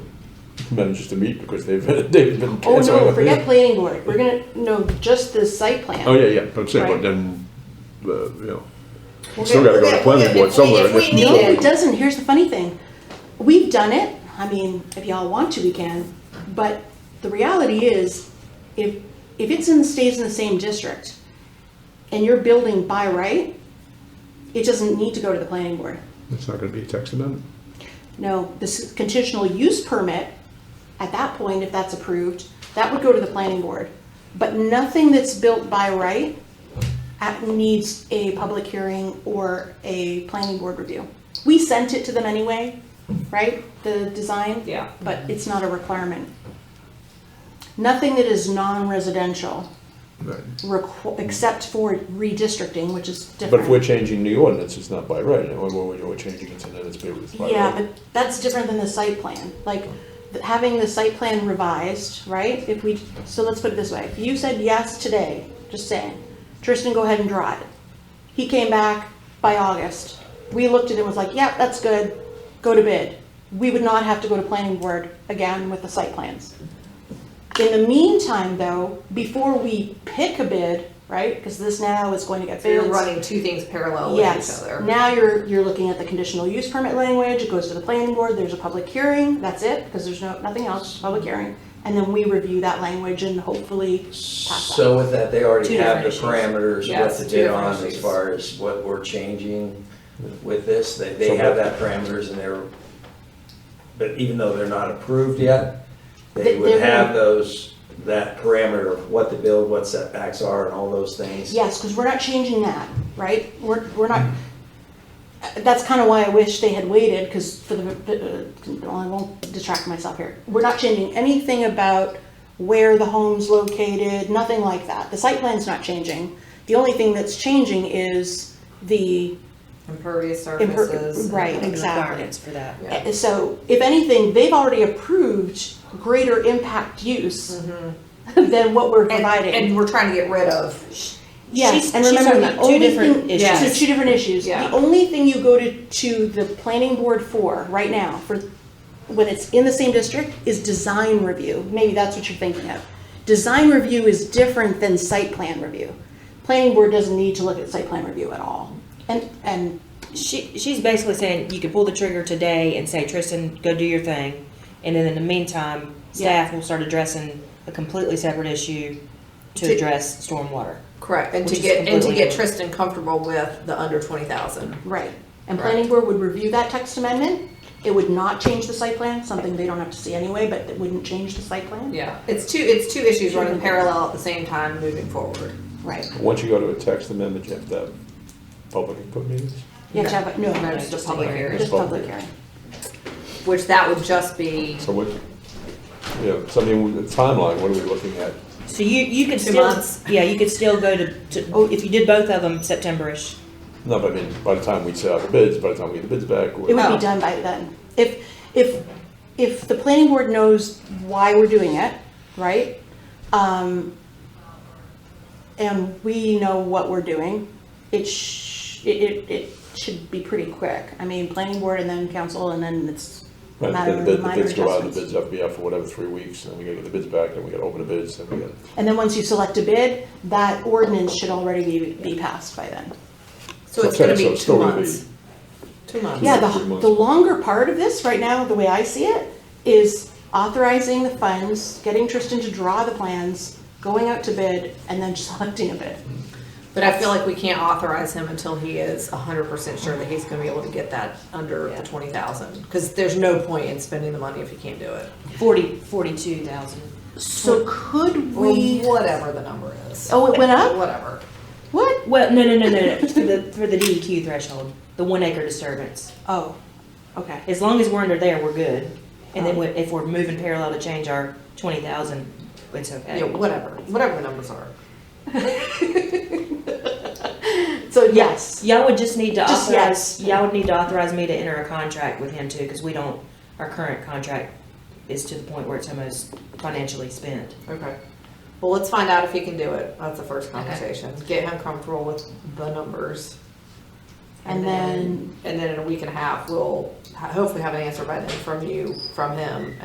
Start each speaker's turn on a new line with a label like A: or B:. A: managed to meet because they've, they've been
B: Oh,
A: canceled.
B: no, forget planning board, we're gonna, no, just the site plan.
A: Oh, yeah, yeah, but I'm saying, but
B: Right.
A: then, uh, you know,
B: We'll
A: still
B: get-
A: gotta go to planning board somewhere.
C: If we- if we
B: No,
C: need
B: it doesn't, here's the funny thing, we've done it, I mean, if y'all want to, we can, but the reality is, if, if it's in, stays in the same district, and you're building by right, it doesn't need to go to the planning board.
A: It's not gonna be a text amendment.
B: No, this conditional use permit, at that point, if that's approved, that would go to the planning board. But nothing that's built by right uh, needs a public hearing or a planning board review. We sent it to them anyway, right, the design?
C: Yeah.
B: But it's not a requirement. Nothing that is non-residential,
A: Right.
B: requ- except for redistricting, which is different.
A: But if we're changing new ordinance, it's not by right, and we're, we're we're changing it to then it's by it's by right.
B: Yeah, but that's different than the site plan, like, th- having the site plan revised, right? If we, so let's put it this way, if you said yes today, just saying, Tristan, go ahead and draw it. He came back by August, we looked at it and was like, yep, that's good, go to bid. We would not have to go to planning board again with the site plans. In the meantime, though, before we pick a bid, right, because this now is going to get
C: So you're
B: bids.
C: running two things parallel with each
B: Yes,
C: other.
B: now you're, you're looking at the conditional use permit language, it goes to the planning board, there's a public hearing, that's it, because there's no, nothing else, just public hearing. And then we review that language and hopefully pass that.
D: So with that, they
C: Two
D: already have
C: different
D: the
C: issues.
D: parameters,
C: Yeah,
D: what
C: it's
D: to
C: two
D: bid
C: different
D: on as
C: issues.
D: far as what we're changing with this, they, they
A: So
D: have
A: what-
D: that parameters and they're, but even though they're not approved yet,
B: They-
D: they
B: they're
D: would have
B: gonna-
D: those, that parameter of what to build, what setbacks are and all those things.
B: Yes, because we're not changing that, right? We're, we're not, that's kind of why I wish they had waited, because for the, uh, I won't distract myself here. We're not changing anything about where the home's located, nothing like that. The site plan's not changing. The only thing that's changing is the
C: Impervious
B: Imper-
C: surfaces. and-
B: right,
E: and
B: exactly.
E: requirements for that.
C: Yeah.
B: Uh, So if anything, they've already approved greater impact use
E: Mm-hmm.
B: than what we're
C: And, and
B: providing.
C: we're trying to get rid of.
B: Yes,
E: She's-
B: and
E: she's
B: remember
E: talking
B: the
E: about two
B: only
E: different
B: thing,
E: issues.
B: so two different issues.
C: Yeah.
B: The only thing you go to, to the planning board for right now, for when it's in the same district, is design review. Maybe that's what you're thinking of. Design review is different than site plan review. Planning board doesn't need to look at site plan review at all. And, and
E: She she's basically saying you can pull the trigger today and say Tristan, go do your thing, and then in the meantime, staff will start addressing a completely separate issue to,
C: To-
E: address stormwater.
C: Correct, and
E: Which
C: to
E: is
C: get, and to
E: completely
C: get
E: different.
C: Tristan comfortable with the under twenty thousand.
B: Right, and
C: Correct.
B: planning board would review that text amendment, it would not change the site plan, something they don't have to see anyway, but it wouldn't change the site plan.
C: Yeah. It's two, it's two issues running parallel at the same time, moving forward.
B: Right,
A: Once you go to a text amendment, you have to have public input meetings.
B: you have to have, a- no,
C: No,
B: no,
C: just a
E: just
C: public
E: a hearing.
C: hearing,
B: just public hearing.
C: which that would just be
A: So what, you know, something, with the timeline, what are we looking at?
E: So you you could
C: Two
E: still
C: months.
E: yeah you could still go to, to oh, if you did both of them Septemberish.
A: No, but I mean, by the time we set out the bids, by the time we get the bids back,
B: It
A: we're,
B: would
C: Oh.
B: be done by then. If, if, if the planning board knows why we're doing it, right? Um, and we know what we're doing, it sh, it, it, it should be pretty quick. I mean, planning board and then council and then it's a
A: right,
B: matter
A: then
B: of
A: the
B: minor
A: bid- the
B: adjustments.
A: bids go out, the bids have to be out for whatever, three weeks, and then we gotta get the bids back, then we gotta open the bids, then we gotta.
B: And then once you select a bid, that ordinance should already be, be passed by then.
C: So it's
A: Okay,
C: gonna be
A: it's
C: two
A: still gonna be-
C: months. Two months.
B: Yeah,
A: Three
B: the,
A: months.
B: the longer part of this, right now, the way I see it, is authorizing the funds, getting Tristan to draw the plans, going out to bid, and then selecting a bid.
C: But I feel like we can't authorize him until he is hundred percent sure that he's gonna be able to get that under the twenty thousand. Cause there's no point in spending the money if he can't do it.
E: 40, 42,000.
B: So could
C: Or
B: we,
C: whatever the number is.
B: oh, it went up?
C: Whatever.
B: What?
E: Well, no, no, no, no, no. for the for the DEQ threshold, the one acre disturbance.
B: Oh, okay.
E: As long as we're under there, we're good. And then we- if we're moving parallel to change our twenty thousand, it's okay.
C: Yeah, whatever, whatever the numbers are.
B: So yes,
E: Y'all would just need to
B: Just
E: authorize,
B: yes.
E: y'all would need to authorize me to enter a contract with him too, because we don't, our current contract is to the point where it's almost financially spent.
C: Okay. Well, let's find out if he can do it. That's the first conversation. Get him comfortable with the numbers.
B: And then-
C: And then in a week and a half, we'll ha- hopefully have an answer by then from you, from him,